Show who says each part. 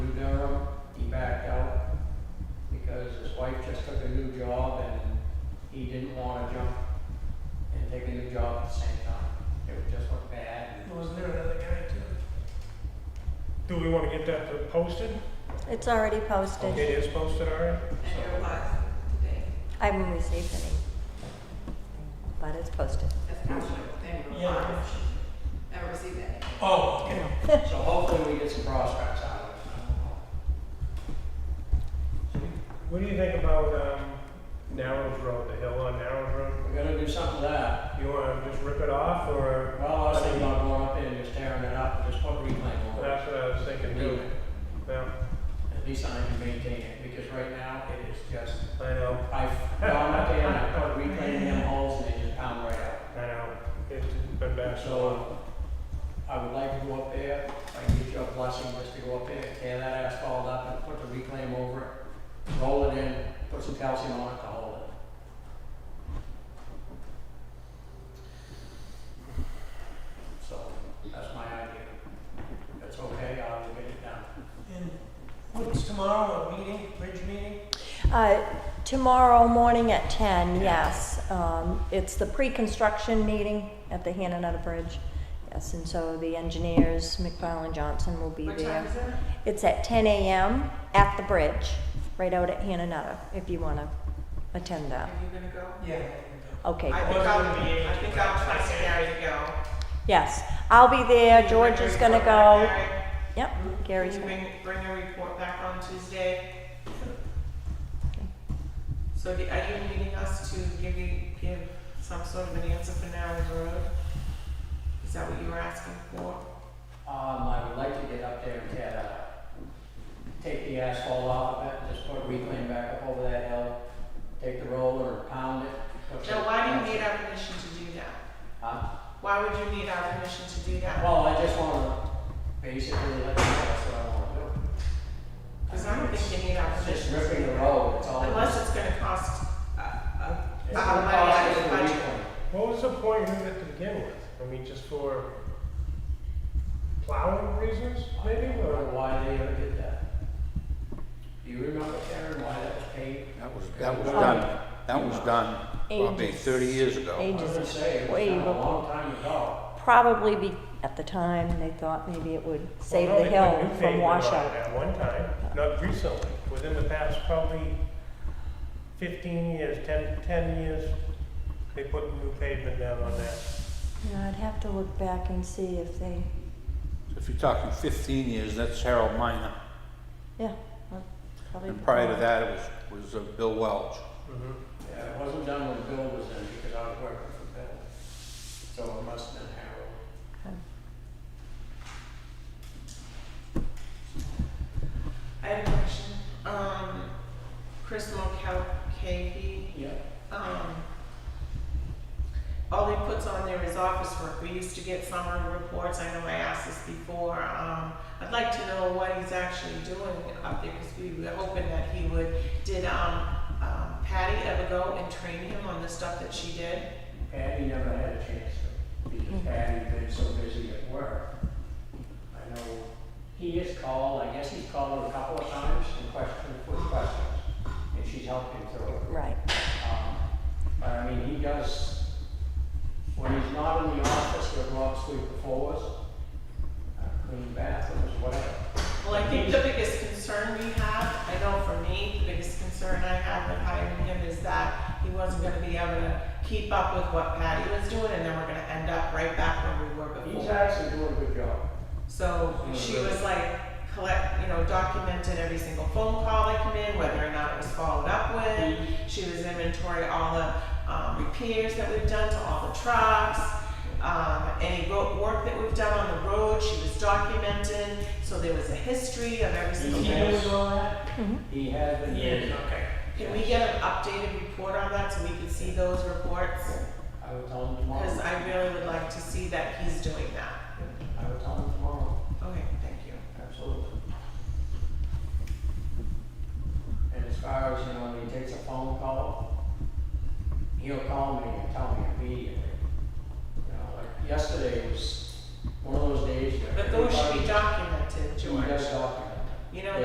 Speaker 1: get that posted?
Speaker 2: It's already
Speaker 1: It
Speaker 2: posted.
Speaker 1: is posted already?
Speaker 3: And your replies today,
Speaker 2: I haven't received any, but it's posted.
Speaker 3: that's council, and your
Speaker 1: Yeah.
Speaker 3: replies. Never received any.
Speaker 1: Oh, okay.
Speaker 4: So hopefully we get some prospects out of it.
Speaker 1: What do you think about, um, Narrows Road, the hill on Narrows Road?
Speaker 4: We're gonna do something to that.
Speaker 1: You wanna just rip it off, or,
Speaker 4: Well, I was thinking about going up there and just tearing it up, and just put reclaim over it.
Speaker 1: that's what I was thinking,
Speaker 4: And do
Speaker 1: too.
Speaker 4: it.
Speaker 1: Yeah,
Speaker 4: At least I can maintain it, because right now it is just,
Speaker 1: I know,
Speaker 4: I've gone up there and I put reclaim in holes and they just pound right out.
Speaker 1: I know, it's been bad so long.
Speaker 4: So uh, I would like to go up there, if I can get your blessing just to go up there, tear that asphalt up and put the reclaim over it, roll it in, put some calcium on it to hold it. So that's my idea. If it's okay, I will get it done.
Speaker 5: What's tomorrow, a meeting, bridge meeting?
Speaker 2: Uh, Tomorrow morning at 10, yes. Um, It's the pre-construction meeting at the Hananutta Bridge. Yes, and so the engineers, McFarland Johnson, will be
Speaker 3: What time
Speaker 2: there.
Speaker 3: is it?
Speaker 2: It's at 10 a.m. at the bridge, right out at Hananutta, if you want to attend that.
Speaker 3: Are you gonna go?
Speaker 5: Yeah.
Speaker 2: Okay,
Speaker 3: I think I'll, I think I'll try to Gary to go.
Speaker 2: yes. I'll be there, George is going to go.
Speaker 3: Gary,
Speaker 2: Yep, Gary's
Speaker 3: Can you
Speaker 2: going.
Speaker 3: bring, bring your report back on Tuesday? So do- are you needing us to give you, give some sort of an answer for Narrows Road? Is that what you were asking for?
Speaker 4: Um, I would like to get up there and tear that up. Take the asphalt off of it, just put reclaim back up over that hill, take the roller, pound it. put
Speaker 3: Joe,
Speaker 4: the-
Speaker 3: why do you need our permission to do that?
Speaker 4: Huh?
Speaker 3: Why would you need our permission to do that?
Speaker 4: Well, I just wanna basically let you know that's what I wanna do.
Speaker 3: Because I don't think you need our
Speaker 4: It's just
Speaker 3: permission.
Speaker 4: ripping the road, it's all.
Speaker 3: Unless it's gonna cost, uh, uh,
Speaker 4: It's
Speaker 3: uh,
Speaker 4: gonna
Speaker 3: money
Speaker 4: cost
Speaker 3: out
Speaker 4: us
Speaker 3: of the
Speaker 4: a
Speaker 3: budget.
Speaker 4: refund.
Speaker 1: What was the point of it to begin with? I mean, just for plowing reasons,
Speaker 4: I
Speaker 1: maybe,
Speaker 4: don't know
Speaker 1: or?
Speaker 4: why they ever did that. Do you remember Karen, why that was paid?
Speaker 6: That was, that was
Speaker 4: Um,
Speaker 6: done, that was done probably
Speaker 2: ages-
Speaker 6: thirty years ago.
Speaker 4: I was gonna
Speaker 2: Ages,
Speaker 4: say, it was
Speaker 2: way
Speaker 4: done a
Speaker 2: before.
Speaker 4: long time ago.
Speaker 2: Probably be, at the time, they thought maybe it would save
Speaker 1: Well, no,
Speaker 2: the
Speaker 1: they put new
Speaker 2: hill
Speaker 1: pavement
Speaker 2: from
Speaker 1: on
Speaker 2: washout.
Speaker 1: At one time, not recently, within the past probably fifteen years, 10 10 years, they put new pavement down on that.
Speaker 2: Yeah, I'd have to look back and see if they,
Speaker 6: If you're talking fifteen years, that's Harold Miner,
Speaker 2: yeah. well, probably
Speaker 6: and prior to that, it was, was uh, Bill Welch.
Speaker 1: Mhm.
Speaker 4: Yeah, it wasn't done when Bill was in, because I was working for Bill. So it must have been Harold.
Speaker 3: I had a question. Um, Chris Mulcahy,
Speaker 4: Yeah.
Speaker 3: um, all he puts on there is office work. We used to get summer reports. I know I asked this before. Um, I'd like to know what he's actually doing up there because we were hoping that he would. Did um, um, Patty ever go and train him on the stuff that she did?
Speaker 4: Patty never had a chance to, because Patty's been so busy at work. I know he has called, I guess he's called her a couple of times and questioned, with questions, and she's helped him through it.
Speaker 2: Right,
Speaker 4: Um, But I mean, he does, when he's not in the office, he'll go out, sweep the floors, uh, clean bathrooms, whatever.
Speaker 3: Well, I think the biggest concern we have, I know for me, the biggest concern I have with hiring him is that he wasn't gonna be able to keep up with what Patty was doing, and then we're gonna end up right back where we were
Speaker 4: He's
Speaker 3: before.
Speaker 4: actually doing a good job.
Speaker 3: So she was like, collect, you know, documented every single phone call that come in, whether or not it was followed up with. She was inventory all the, um, repairs that we've done to all the trucks, um, any ro- work that we've done on the road, she was documented, so there was a history of every
Speaker 4: He's
Speaker 3: single thing.
Speaker 4: doing all that. He has been. doing-
Speaker 3: okay. Can we get an updated report on that so we can see those reports?
Speaker 4: I will tell him tomorrow.
Speaker 3: Because I really would like to see that he's doing that.
Speaker 4: I will tell him tomorrow.
Speaker 3: Okay, thank you.
Speaker 4: Absolutely. And as far as, you know, when he takes a phone call, he'll call me and tell me immediately. You know, like yesterday was one of those days where
Speaker 3: But those should be
Speaker 4: everybody,
Speaker 3: documented,
Speaker 4: he does
Speaker 3: George.
Speaker 4: document.
Speaker 3: You know,